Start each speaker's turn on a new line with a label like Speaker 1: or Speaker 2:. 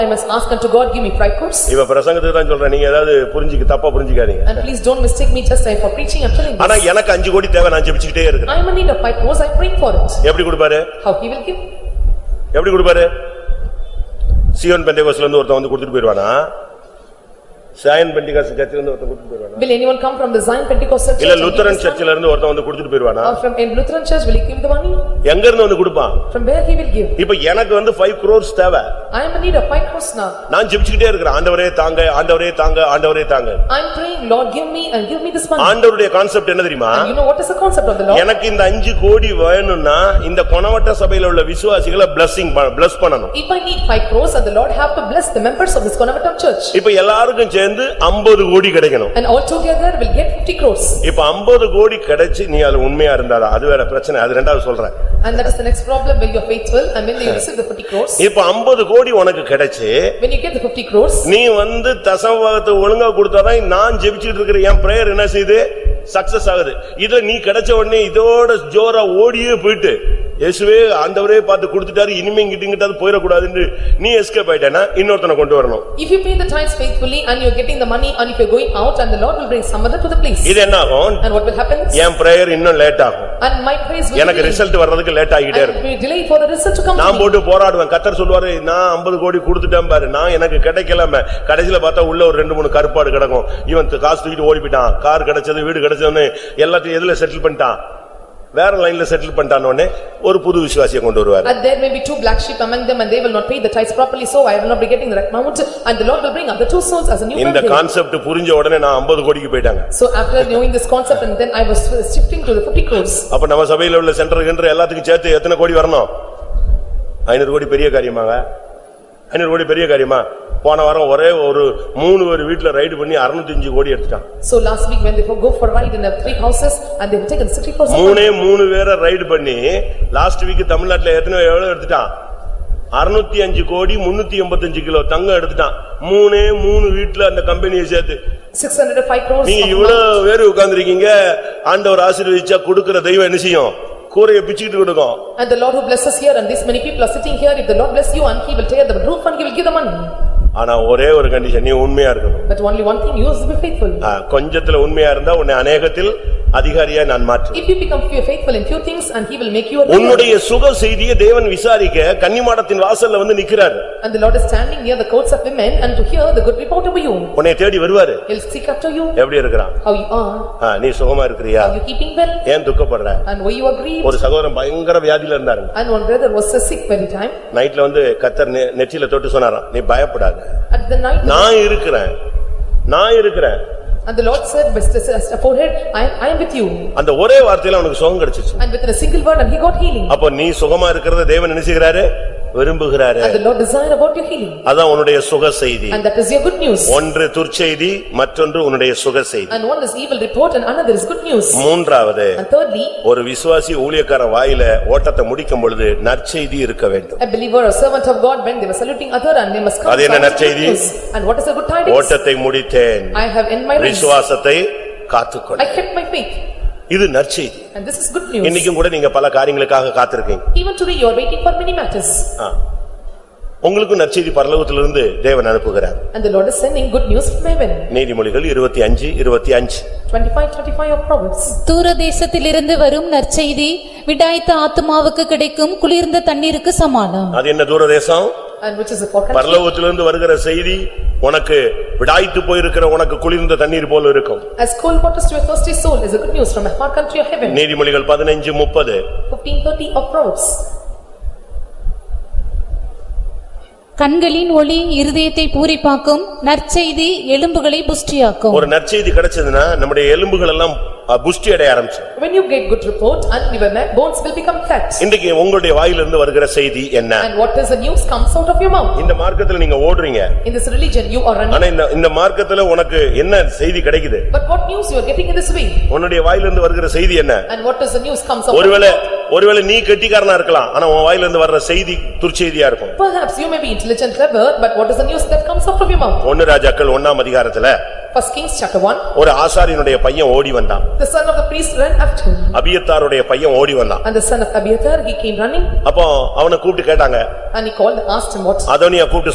Speaker 1: must ask unto God, give me five crores.
Speaker 2: இவ பிரசங்கத்துக்கு தான் சொல்றேன் நீங்க ஏதாவது புரிஞ்சுக்க தப்பா புரிஞ்சுக்காதீங்க
Speaker 1: And please don't mistake me just I- for preaching, I'm telling
Speaker 2: ஆனா
Speaker 1: this.
Speaker 2: எனக்கு அஞ்சு கோடி தேவை நான் ஜெபிச்சுக்கிட்டே இருக்கிறேன்
Speaker 1: I'm in need of five crores, I prayed for it.
Speaker 2: எப்படி கொடுப்பாரு
Speaker 1: How he will give?
Speaker 2: எப்படி கொடுப்பாரு சியோன் பெண்டிகாஸ்ல இருந்து ஒருத்தன் வந்து கொடுத்துட்டு போயிருவானா சாயன் பெண்டிகாஸ் சர்ச்சில் இருந்து ஒருத்தன் கொடுத்துட்டு போயிருவானா
Speaker 1: Will anyone come from the Zion Pentecostal church?
Speaker 2: இல்ல
Speaker 1: and give
Speaker 2: Lutheran
Speaker 1: this money?
Speaker 2: சர்ச்சில் இருந்து ஒருத்தன் வந்து கொடுத்துட்டு போயிருவானா
Speaker 1: Or from in Lutheran church, will he give the money?
Speaker 2: எங்க இருந்து வந்து கொடுப்பான்
Speaker 1: From where he will give?
Speaker 2: இப்ப எனக்கு வந்து ஃபைவ் crores தேவை
Speaker 1: I am in need of five crores now.
Speaker 2: நான் ஜெபிச்சுக்கிட்டே இருக்கிறேன் ஆண்டவரே தாங்க ஆண்டவரே தாங்க ஆண்டவரே தாங்க
Speaker 1: I'm praying, Lord, give me and give me this money.
Speaker 2: ஆண்டவருடைய கான்செப்ட் என்ன தெரியுமா
Speaker 1: You know what is the concept of the law?
Speaker 2: எனக்கு இந்த அஞ்சு கோடி வேணும்னா இந்த கொணவட்ட சபையில உள்ள விசுவாசிகளை பிளஸிங் பிளஸ் பண்ணணும்
Speaker 1: If I need five crores and the Lord have to bless the members of this Conavatam church
Speaker 2: இப்ப எல்லாருக்கும் சேர்ந்து 50 கோடி கிடைக்கணும்
Speaker 1: and all together will get fifty crores
Speaker 2: இப்ப 50 கோடி கிடைச்சு நீ அதுல உண்மையா இருந்தாதா அது வேற பிரச்சனை அது ரெண்டாவது சொல்றேன்
Speaker 1: and that is the next problem when you are faithful and when you receive the fifty crores
Speaker 2: இப்ப 50 கோடி உனக்கு கிடைச்சு
Speaker 1: when you get the fifty crores
Speaker 2: நீ வந்து தசமபாகத்தை ஒழுங்கா கொடுத்தாதான் நான் ஜெபிச்சுட்டு இருக்கிற என் பிரேயர் என்ன செய்யுது சக்சஸ் ஆகுது இதுல நீ கிடைச்ச உடனே இதோட ஜோரா ஓடியே போயிட்டு இயேசுவே ஆண்டவரே பார்த்து கொடுத்துட்டாரு இனிமே இங்கிட்டிங்கிட்டாவது போயிடக்கூடாதுன்னு நீ எஸ்கேப் ஆயிட்டேன்னா இன்னொருத்தனை கொண்டு வரணும்
Speaker 1: if you pay the tithes faithfully and you are getting the money and if you are going out and the Lord will bring some other to the place
Speaker 2: இது என்ன ஆகும்
Speaker 1: and what will happen
Speaker 2: என் prayer இன்னும் late ஆகும்
Speaker 1: and my praise will
Speaker 2: எனக்கு
Speaker 1: delay
Speaker 2: result வர்றதுக்கு late ஆகிட்டே
Speaker 1: and
Speaker 2: இருக்கும்
Speaker 1: it will delay for the result to come to
Speaker 2: நான்
Speaker 1: me
Speaker 2: போட்டு போராடுவேன் கத்தர் சொல்லுவாரு நான் 50 கோடி கொடுத்துட்டேன் பாரு நான் எனக்கு கிடைக்கலமே கடைசில பார்த்தா உள்ள ஒரு ரெண்டு மூணு கருப்பாடு கிடக்கும் இவன் த- காசு தூக்கிட்டு ஓடி போயிட்டான் கார் கிடைச்சது வீடு கிடைச்சதுன்னு எல்லாத்தையும் எதுல செட்டில் பண்ணிட்டான் வேற லைன்ல செட்டில் பண்ணிட்டான் உடனே ஒரு புது விசுவாசியை கொண்டு வருவாரு
Speaker 1: and there may be two black sheep among them and they will not pay the tithes properly so I will not be getting the amount and the Lord will bring other two souls as a new
Speaker 2: இந்த
Speaker 1: birthday
Speaker 2: concept புரிஞ்ச உடனே நான் 50 கோடிக்கு போயிட்டாங்க
Speaker 1: So after knowing this concept and then I was shifting to the fifty crores
Speaker 2: அப்ப நம்ம சபையில உள்ள சென்டர் கிண்டர் எல்லாத்துக்கும் சேர்த்து எத்தனை கோடி வரணும் ஐநூறு கோடி பெரிய காரியமாங்க ஐநூறு கோடி பெரிய காரியமா போன வாரம் ஒரே ஒரு மூணு ஒரு வீட்டுல ரைடு பண்ணி 605 கோடி எடுத்துட்டான்
Speaker 1: So last week when they go for ride in the three houses and they have taken sixty crores.
Speaker 2: மூணே மூணு பேரை ரைடு பண்ணி லாஸ்ட் வீக் தமிழ்நாட்டுல எத்தனை எவ்வளவு எடுத்துட்டான் அறுநூத்தி அஞ்சு கோடி முன்னூத்தி எண்பத்தஞ்சு கிலோ தங்கம் எடுத்துட்டான் மூணே மூணு வீட்டுல அந்த கம்பெனியை சேர்த்து
Speaker 1: Six hundred and five crores.
Speaker 2: நீங்க
Speaker 1: of
Speaker 2: இவ்வளவு பேரு உட்கார்ந்திருக்கீங்க ஆண்டவர் ஆசீர்வதிச்சா கொடுக்கிற தெய்வம் என்ன செய்யும் கூரையை பிச்சுக்கிட்டு கொடுக்கும்
Speaker 1: money. And the Lord who blesses here and these many people are sitting here, if the Lord bless you and he will tear the roof and he will give the money.
Speaker 2: ஆனா ஒரே ஒரு condition நீ உண்மையா இருக்கணும்
Speaker 1: But only one thing, you must be faithful.
Speaker 2: ஆ, கொஞ்சத்துல உண்மையா இருந்தா உன்னை அநேகத்தில் அதிகாரியா நான் மாற்றுவேன்
Speaker 1: If you become few faithful in few things and he will make you a ruler.
Speaker 2: உன்னுடைய சுக செய்தியை தேவன் விசாரிக்க கன்னிமாடத்தின் வாசல்ல வந்து நிக்கிறாரு
Speaker 1: And the Lord is standing near the courts of women and to hear the good report over you.
Speaker 2: உன்னை தேடி வருவாரு
Speaker 1: He'll seek after you,
Speaker 2: எப்படி இருக்கிறான்
Speaker 1: how you are,
Speaker 2: ஆ, நீ சுகமா இருக்கிறியா
Speaker 1: are you keeping well
Speaker 2: ஏன் துக்கப்படுற
Speaker 1: and why you are grieved.
Speaker 2: ஒரு சகோதரன் பயங்கர வியாதியில இருந்தாருங்க
Speaker 1: And one brother was sick very time.
Speaker 2: நைட்ல வந்து கத்தர் நெ- நெற்றியில தொட்டு சொன்னாராம் நீ பயப்படாத
Speaker 1: At the night
Speaker 2: நான் இருக்கிறேன் நான் இருக்கிறேn
Speaker 1: and the Lord said, "Mr. forehead, I I am with you."
Speaker 2: அந்த ஒரே வார்த்தையில அவனுக்கு சுகம் கிடைச்சிச்சு
Speaker 1: And within a single word and he got healing.
Speaker 2: அப்போ நீ சுகமா இருக்கிறத தேவன் நினைச்சுகிறாரு விரும்புகிறாரு
Speaker 1: And the Lord desire about your healing.
Speaker 2: அதான் உன்னுடைய சுக செய்தி
Speaker 1: And that is your good news.
Speaker 2: ஒன்று துர்ச்செய்தி மற்றொன்று உன்னுடைய சுக செய்தி
Speaker 1: And one is evil report and another is good news.
Speaker 2: Hmm. மூன்றாவது
Speaker 1: And thirdly,
Speaker 2: ஒரு விசுவாசி ஊழியக்காரன் வாயில ஓட்டத்தை முடிக்கும் பொழுது நற்செய்தி இருக்க வேண்டும்
Speaker 1: a believer or servant of God, when they were saluting other and they must come.
Speaker 2: அது என்ன
Speaker 1: and shout good
Speaker 2: நற்செய்தி?
Speaker 1: news. And what is the good tidings?
Speaker 2: ஓட்டத்தை முடித்தேன்
Speaker 1: I have in my race.
Speaker 2: விசுவாசத்தை
Speaker 1: I
Speaker 2: காத்துக்கொண்டேன்
Speaker 1: kept my faith.
Speaker 2: இது நற்செய்தி
Speaker 1: And this is good news.
Speaker 2: இன்னைக்கும் கூட நீங்க பல காரியங்களுக்காக காத்திருக்கீங்க
Speaker 1: Even today you are waiting for many matters.
Speaker 2: ஆ. உங்களுக்கும் நற்செய்தி பரலோகத்திலிருந்து தேவன் அனுப்புகிறார்
Speaker 1: And the Lord is sending good news from heaven.
Speaker 2: நீதிமொழிகள் இருபத்தி அஞ்சு இருபத்தி அஞ்சு
Speaker 1: Twenty-five, twenty-five of Proverbs.
Speaker 3: தூரதேசத்திலிருந்து வரும் நற்செய்தி விடாய்த்த ஆத்துமாவுக்கு கிடைக்கும் குளிர்ந்த தண்ணீருக்கு சமானம்
Speaker 2: அது என்ன தூரதேசம்
Speaker 1: And which is a forecast.
Speaker 2: பரலோகத்திலிருந்து வருகிற செய்தி உனக்கு விடாய்த்து போயிருக்கிற உனக்கு குளிர்ந்த தண்ணீர் போல இருக்கும்
Speaker 1: As cold waters to a thirsty soul is a good news from a far country of heaven.
Speaker 2: நீதிமொழிகள் பதினைஞ்சு முப்பது
Speaker 1: Fifteen thirty of Proverbs.
Speaker 3: கண்களின் ஒளி இருதயத்தை பூரிப்பாக்கும் நற்செய்தி எலும்புகளை புஷ்டியாக்கும்
Speaker 2: ஒரு நற்செய்தி கிடைச்சதுன்னா நம்முடைய எலும்புகள் எல்லாம் அ, புஷ்டி அடைய ஆரம்பிச்சு
Speaker 1: When you get good report and your ma- bones will become fat.
Speaker 2: இன்றைக்கு உங்களுடைய வாயிலிருந்து வருகிற செய்தி என்ன
Speaker 1: And what is the news comes out of your mouth.
Speaker 2: இந்த மார்க்கத்துல நீங்க ஓடுறீங்க
Speaker 1: In this religion, you are running.
Speaker 2: ஆனா இந்த இந்த மார்க்கத்துல உனக்கு என்ன செய்தி கிடைக்குது
Speaker 1: But what news you are getting in this way?
Speaker 2: உன்னுடைய வாயிலிருந்து வருகிற செய்தி என்ன
Speaker 1: And what is the news comes out?
Speaker 2: ஒருவேளை ஒருவேளை நீ கெட்டிக்காரனா இருக்கலாம் ஆனா உன் வாயிலிருந்து வர்ற செய்தி துர்ச்செய்தியா இருக்கும்
Speaker 1: Perhaps you may be intelligent, clever, but what is the news that comes out of your mouth?
Speaker 2: ஒன்னு ராஜாக்கள் ஒண்ணாம் அதிகாரத்துல
Speaker 1: First Kings chapter one,
Speaker 2: ஒரு ஆசாரியனுடைய பையன் ஓடி வந்தான்
Speaker 1: the son of the priest ran after him.
Speaker 2: அபியத்தாருடைய பையன் ஓடி வந்தான்
Speaker 1: And the son of Abiathar, he came running
Speaker 2: அப்போ அவனை கூப்பிட்டு கேட்டாங்க
Speaker 1: and he called, asked him what
Speaker 2: அதோனியா கூப்பிட்டு